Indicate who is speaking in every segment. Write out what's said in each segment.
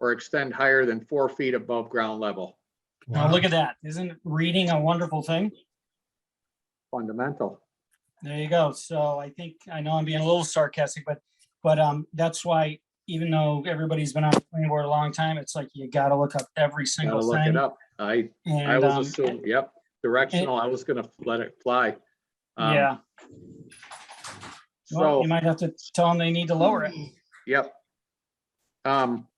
Speaker 1: or extend higher than four feet above ground level.
Speaker 2: Now, look at that. Isn't reading a wonderful thing?
Speaker 1: Fundamental.
Speaker 2: There you go. So I think, I know I'm being a little sarcastic, but, but, um, that's why even though everybody's been on the planning board a long time, it's like you gotta look up every
Speaker 1: Gotta
Speaker 2: single
Speaker 1: look it
Speaker 2: thing.
Speaker 1: up. I, I
Speaker 2: And, um,
Speaker 1: was assuming, yep, directional. I was gonna let it fly. Um,
Speaker 2: yeah, well,
Speaker 1: So-
Speaker 2: you might have to tell them they need to lower it.
Speaker 1: Yep. Um.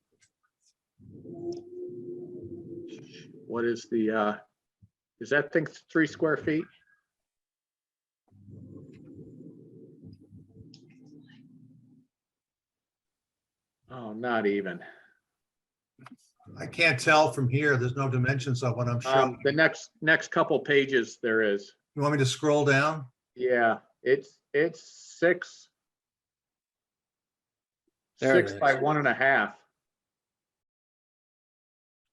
Speaker 1: What is the, uh, is that thing three square feet? Oh, not even.
Speaker 3: I can't tell from here. There's no dimensions of
Speaker 4: Uh,
Speaker 3: what I'm
Speaker 1: Um,
Speaker 3: showing.
Speaker 1: the next, next couple pages there is.
Speaker 3: You want me to scroll down?
Speaker 1: Yeah, it's, it's six.
Speaker 4: There it
Speaker 1: Six by
Speaker 4: is.
Speaker 1: one and a half.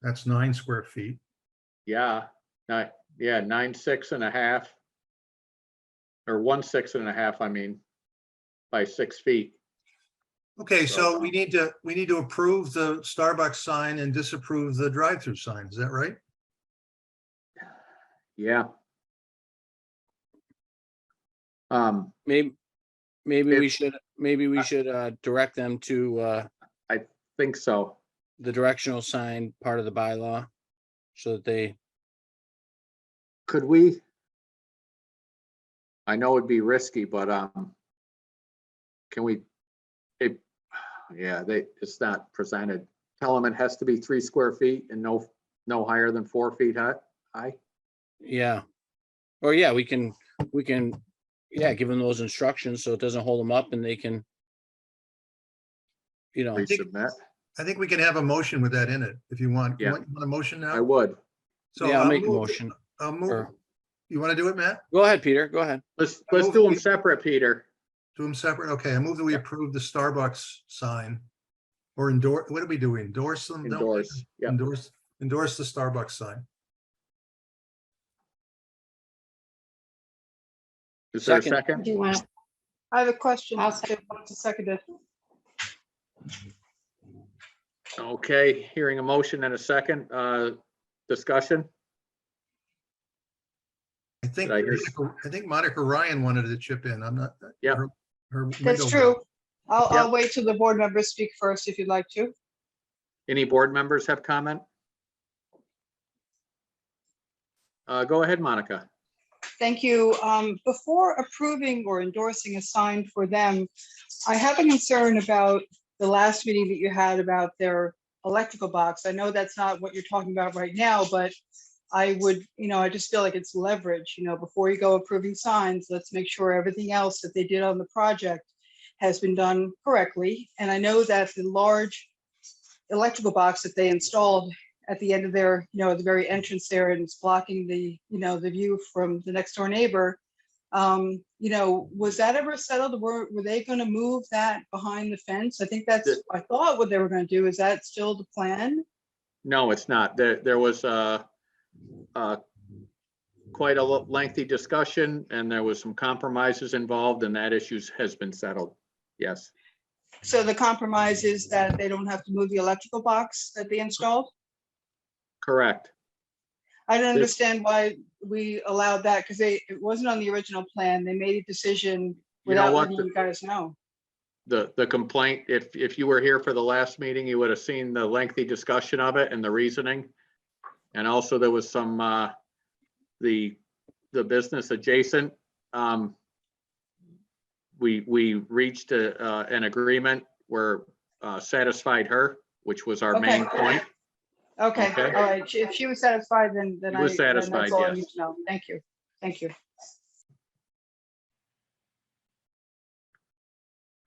Speaker 3: That's nine square feet.
Speaker 1: Yeah, nine, yeah, nine, six and a half. Or one, six and a half, I mean, by six feet.
Speaker 3: Okay, so we need to, we need to approve the Starbucks sign and disapprove the drive-through sign. Is that right?
Speaker 1: Yeah. Um,
Speaker 4: Maybe, maybe we
Speaker 1: If-
Speaker 4: should, maybe we should uh direct them to uh
Speaker 1: think so.
Speaker 4: the directional sign part of the bylaw. So that they,
Speaker 1: Could we? I know it'd be risky, but, um, can we? It, yeah, they, it's not presented. Tell them it has to be three square feet and no, no higher than four feet high, high.
Speaker 4: yeah. Or yeah, we can, we can, yeah, give them those instructions so it doesn't hold them up and they can. You know,
Speaker 3: think-
Speaker 1: Resubmit.
Speaker 3: I think we can have a motion with that in it if you want. You
Speaker 1: Yeah.
Speaker 3: Want you want a motion
Speaker 1: I
Speaker 3: now?
Speaker 1: would.
Speaker 3: So
Speaker 4: yeah, I'll
Speaker 3: I'll
Speaker 4: make a
Speaker 3: move-
Speaker 4: motion.
Speaker 3: I'll move.
Speaker 4: or-
Speaker 3: You want to do it, Matt?
Speaker 4: Go ahead, Peter, go ahead.
Speaker 1: Let's,
Speaker 3: I
Speaker 1: let's
Speaker 3: move
Speaker 1: do them
Speaker 3: we-
Speaker 1: separate, Peter.
Speaker 3: Do them separate? Okay, I move that we approve the Starbucks sign. Or endorse, what do we do? We Endorse them? don't we?
Speaker 1: Endorse, yeah.
Speaker 3: Endorse, endorse the Starbucks sign.
Speaker 1: Is there a
Speaker 4: Second.
Speaker 1: second?
Speaker 5: Do you want,
Speaker 6: I have a question.
Speaker 5: I'll
Speaker 6: Second. Seconded.
Speaker 1: Okay, hearing a motion and a second, uh, discussion.
Speaker 3: I think,
Speaker 1: Did I hear-
Speaker 3: Monica- I think Monica Ryan wanted to chip in. I'm not.
Speaker 1: Yeah.
Speaker 3: her- her
Speaker 6: That's
Speaker 3: window-
Speaker 6: true. I'll,
Speaker 1: Yep.
Speaker 6: I'll wait till the board members speak first if you'd like to.
Speaker 1: Any board members have comment? Uh, go ahead, Monica.
Speaker 6: Thank you. Um, Before approving or endorsing a sign for them, I have a concern about the last meeting that you had about their electrical box. I know that's not what you're talking about right now, but I would, you know, I just feel like it's leverage, you know, before you go approving signs, let's make sure everything else that they did on the project has been done correctly. And I know that the large electrical box that they installed at the end of their, you know, at the very entrance there and it's blocking the, you know, the view from the next door neighbor. Um, you know, was that ever settled? Were, were they gonna move that behind the fence? I think that's,
Speaker 1: The-
Speaker 6: I thought what they were gonna do. Is that still the plan?
Speaker 1: No, it's not. There, there was, uh, uh, quite a lo- lengthy discussion and there was some compromises involved and that issue has been settled. Yes,
Speaker 6: So the compromise is that they don't have to move the electrical box that they installed?
Speaker 1: correct.
Speaker 6: I don't
Speaker 1: There's-
Speaker 6: understand why we allowed that because they, it wasn't on the original plan. They made a decision
Speaker 1: You know
Speaker 6: without
Speaker 1: what?
Speaker 6: letting
Speaker 1: The-
Speaker 6: you guys know.
Speaker 1: the, the complaint, if, if you were here for the last meeting, you would have seen the lengthy discussion of it and the reasoning. And also there was some, uh, the, the business adjacent, um, we, we reached a, uh, an agreement where, uh, satisfied her, which was our main
Speaker 6: Okay.
Speaker 1: point.
Speaker 6: Okay,
Speaker 1: Okay.
Speaker 6: all right. If she was satisfied, then, then
Speaker 1: She
Speaker 6: I.
Speaker 1: was
Speaker 6: then that's
Speaker 1: satisfied,
Speaker 6: all I
Speaker 1: yes.
Speaker 6: need to know. Thank you. Thank you.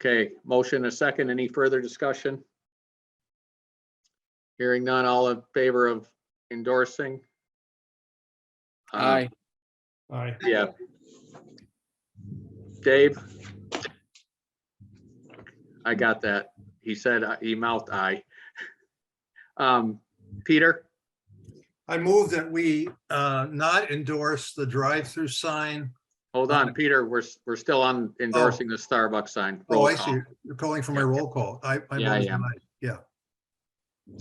Speaker 1: Okay, motion a second. Any further discussion? Hearing none, all in favor of endorsing? Uh,
Speaker 4: Aye,
Speaker 3: Aye.
Speaker 1: Yeah. Dave? I got that. He said, uh, he mouthed aye. Um, Peter,
Speaker 3: I move that we uh, not endorse the drive-through sign.
Speaker 1: hold
Speaker 3: Uh-huh.
Speaker 1: on, Peter, we're, s- we're still on endorsing the Starbucks sign.
Speaker 3: Oh,
Speaker 1: Roll
Speaker 3: I
Speaker 1: call.
Speaker 3: see. You're calling for my roll call. I. I
Speaker 1: Yeah, I
Speaker 3: voted
Speaker 1: am.
Speaker 3: aye. Yeah,